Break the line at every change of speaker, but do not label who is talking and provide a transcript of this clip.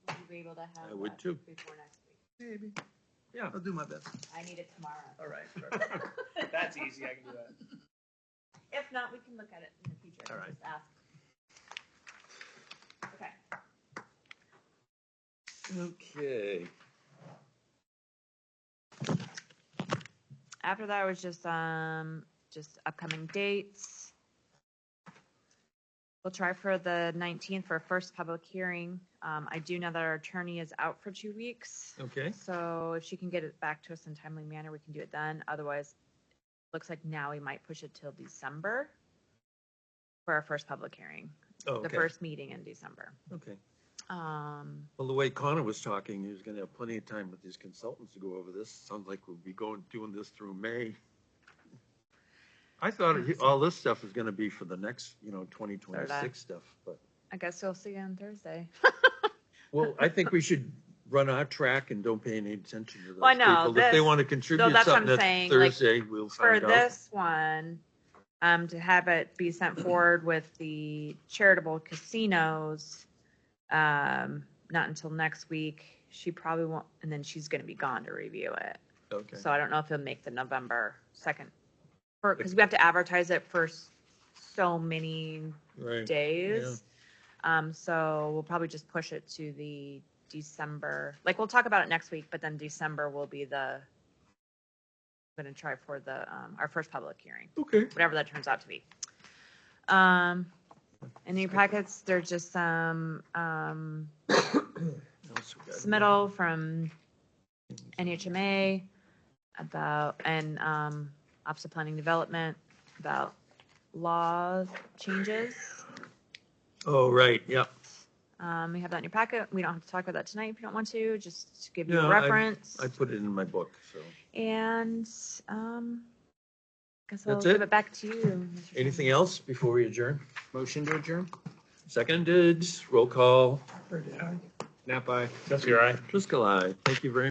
be able to have
I would
that
too.
before next week.
Maybe.
Yeah.
I'll do my best.
I need it tomorrow.
All right. perfect. That's easy. I can do that.
If not, we can look at it in the future.
All right.
Just ask. Okay.
Okay.
After that was just um just upcoming dates. We'll try for the 19th for a first public hearing. Um, I do know that our attorney is out for two weeks.
Okay.
So if she can get it back to us in timely manner, we can do it then. Otherwise, looks like now we might push it till December for our first public hearing,
Oh,
the
okay.
first meeting in December.
Okay.
Um,
Well, the way Connor was talking, he was gonna have plenty of time with his consultants to go over this. Sounds like we'll be going, doing this through May. I thought he- all this stuff is gonna be for the next, you know, twenty twenty-six stuff, but.
I guess we'll see you on Thursday.
Well, I think we should run our track and don't pay any attention to those
Well, no,
people. If they
this-
wanna contribute
that's what I'm
something
saying,
that's
like,
Thursday, we'll
For
find out.
this one, um, to have it be sent forward with the charitable casinos, um, not until next week. She probably won't, and then she's gonna be gone to review it.
Okay.
So I don't know if he'll make the November second, because we have to advertise it for s- so many
Right.
days. Um, so we'll probably just push it to the December, like, we'll talk about it next week, but then December will be the, I'm gonna try for the, um, our first public hearing,
Okay.
whatever that turns out to be. Um, in your packets, there's just some, um, submittal from NHMA about, and um, Office of Planning Development about law changes.
Oh, right. Yeah.
Um, We have that in your packet. We don't have to talk about that tonight if you don't want to, just to give you a
No, I-
reference.
I put it in my book, so.
And um, guess I'll
That's
give
it?
it back to you. Mr. Chairman.
Anything else before we adjourn?
Motion to adjourn.
Seconded, roll call,
Pretty hard.
Nap eye. That's your eye.
Driscoll, aye. Thank you very